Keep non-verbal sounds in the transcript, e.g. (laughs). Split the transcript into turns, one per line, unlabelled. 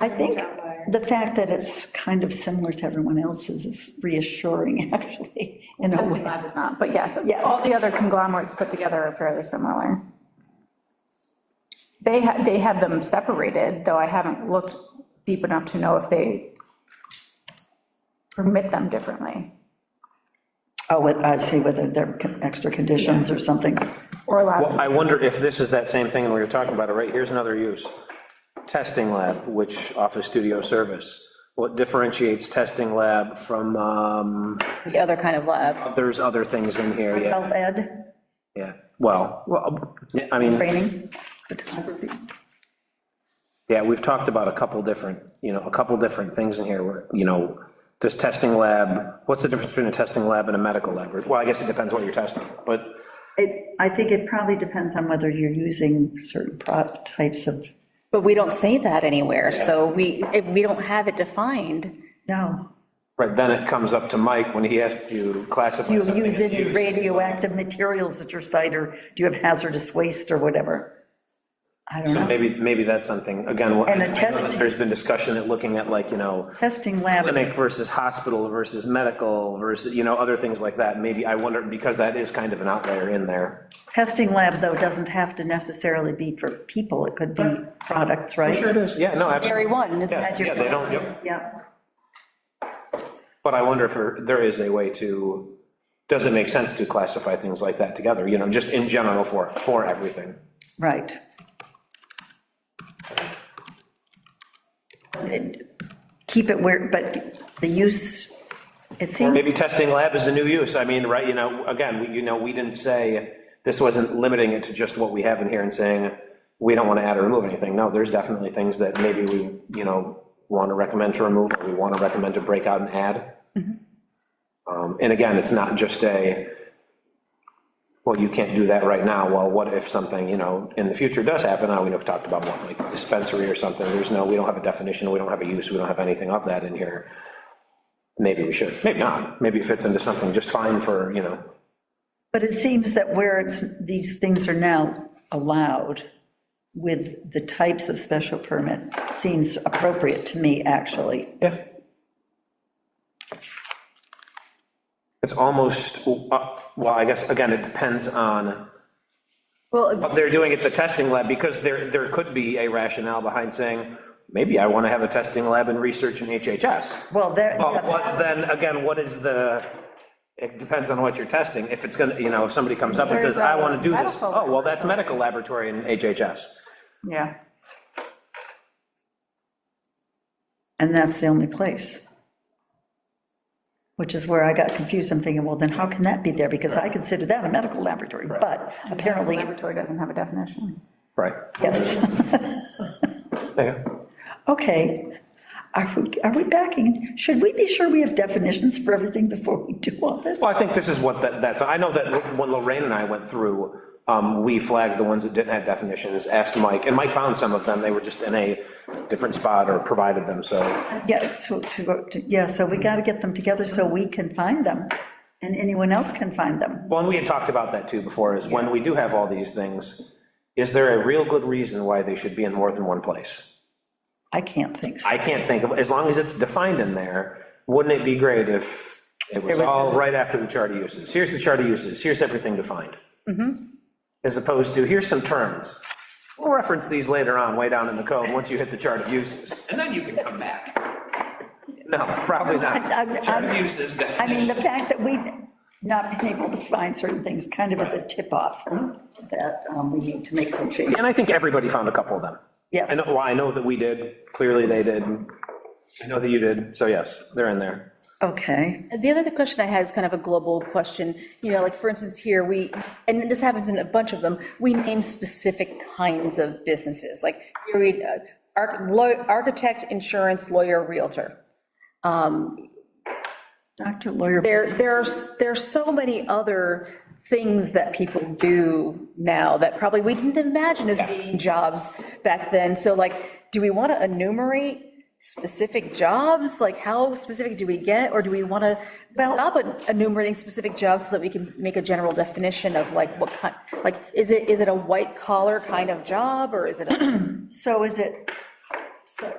I think
outlier.
the fact that it's kind of similar to everyone else's is reassuring, (laughs) actually, in a
Testing
way.
lab is not, but yes,
Yes.
all the other conglomerates put together are fairly similar. They had, they had them separated, though I haven't looked deep enough to know if they permit them differently,
Oh, what- I see, whether there are con- extra conditions or something.
or
Well,
allow,
I wonder if this is that same thing, and we were talking about it, right? Here's another use. Testing lab, which office studio service. What differentiates testing lab from, um,
The other kind of lab.
there's other things in here, yeah,
Health ed,
yeah. Well, well, yeah, I mean,
training, photography.
yeah, we've talked about a couple different, you know, a couple different things in here, where, you know, does testing lab, what's the difference between a testing lab and a medical lab? Well, I guess it depends what you're testing, but,
It, I think it probably depends on whether you're using certain pro- types of,
But we don't say that anywhere, so we, if we don't have it defined.
no.
right, then it comes up to Mike when he has to classify
Do you
something
use
as
any
use.
radioactive materials at your site, or do you have hazardous waste or whatever? I don't
So
know.
maybe, maybe that's something, again, what-
Uh-huh. And a
I know that
testing-
there's been discussion that looking at like, you know,
Testing lab,
clinic versus hospital versus medical versus, you know, other things like that, maybe, I wonder, because that is kind of an outlier in there.
testing lab, though, doesn't have to necessarily be for people, it could be products, right?
Sure it is, yeah, no,
Very
absolutely.
one, isn't
Yeah,
that
yeah,
your?
they don't, yep.
Yeah,
But I wonder if there- there is a way to, does it make sense to classify things like that together, you know, just in general for, for everything?
right. Keep it where, but the use, it
Or
seems,
maybe testing lab is a new use, I mean, right, you know, again, we- you know, we didn't say, this wasn't limiting it to just what we have in here and saying, we don't want to add or remove anything, no, there's definitely things that maybe we, you know, want to recommend to remove, or we want to recommend to break out and add. Um, And again, it's not just a, well, you can't do that right now, well, what if something, you know, in the future does happen, now we know, we talked about one, like dispensary or something, there's no, we don't have a definition, we don't have a use, we don't have anything of that in here maybe we should, maybe not, maybe it fits into something just fine for, you know,
but it seems that where it's, these things are now allowed with the types of special permit seems appropriate to me, actually.
yeah. It's almost, uh, well, I guess, again, it depends on
Well,
what they're doing at the testing lab, because there, there could be a rationale behind saying, maybe I want to have a testing lab and research in HHS.
Well, there,
But what, then, again, what is the, it depends on what you're testing, if it's gonna, you know, if somebody comes up and says, I want to do this,
There's a
oh, well, that's medical laboratory in HHS.
yeah.
and that's the only place. Which is where I got confused, I'm thinking, well, then how can that be there, because I consider that a medical laboratory, but apparently,
Laboratory doesn't have a definition.
Right.
yes, (laughs)
Yeah.
okay. Are we, are we backing, should we be sure we have definitions for everything before we do all this?
Well, I think this is what that, that's, I know that when Lorraine and I went through, um, we flagged the ones that didn't have definitions, asked Mike, and Mike found some of them, they were just in a different spot or provided them, so.
Yeah, so, to- yeah, so we gotta get them together so we can find them, and anyone else can find them.
Well, and we had talked about that too before, is when we do have all these things, is there a real good reason why they should be in more than one place?
I can't think so.
I can't think of, as long as it's defined in there, wouldn't it be great if it was all right after the chart of uses? Here's the chart of uses, here's everything defined. As opposed to, here's some terms. We'll reference these later on, way down in the code, once you hit the chart of uses. And then you can come back. No, probably
(laughs) I- I-
not. Chart of uses
I mean,
definition.
the fact that we've not been able to find certain things kind of is a tip-off that um, we need to make some changes.
And I think everybody found a couple of them.
Yes.
I know, well, I know that we did, clearly they did. I know that you did, so yes, they're in there.
Okay,
the other question I had is kind of a global question, you know, like, for instance, here, we, and this happens in a bunch of them, we name specific kinds of businesses, like, here we, uh, arch- law- architect, insurance, lawyer, realtor.
Dr. Lawyer,
There, there's, there's so many other things that people do now that probably we didn't imagine as being jobs back then. So like, do we want to enumerate specific jobs? Like, how specific do we get? Or do we want to stop enumerating specific jobs so that we can make a general definition of like what kind, like, is it, is it a white collar kind of job or is it a
so is it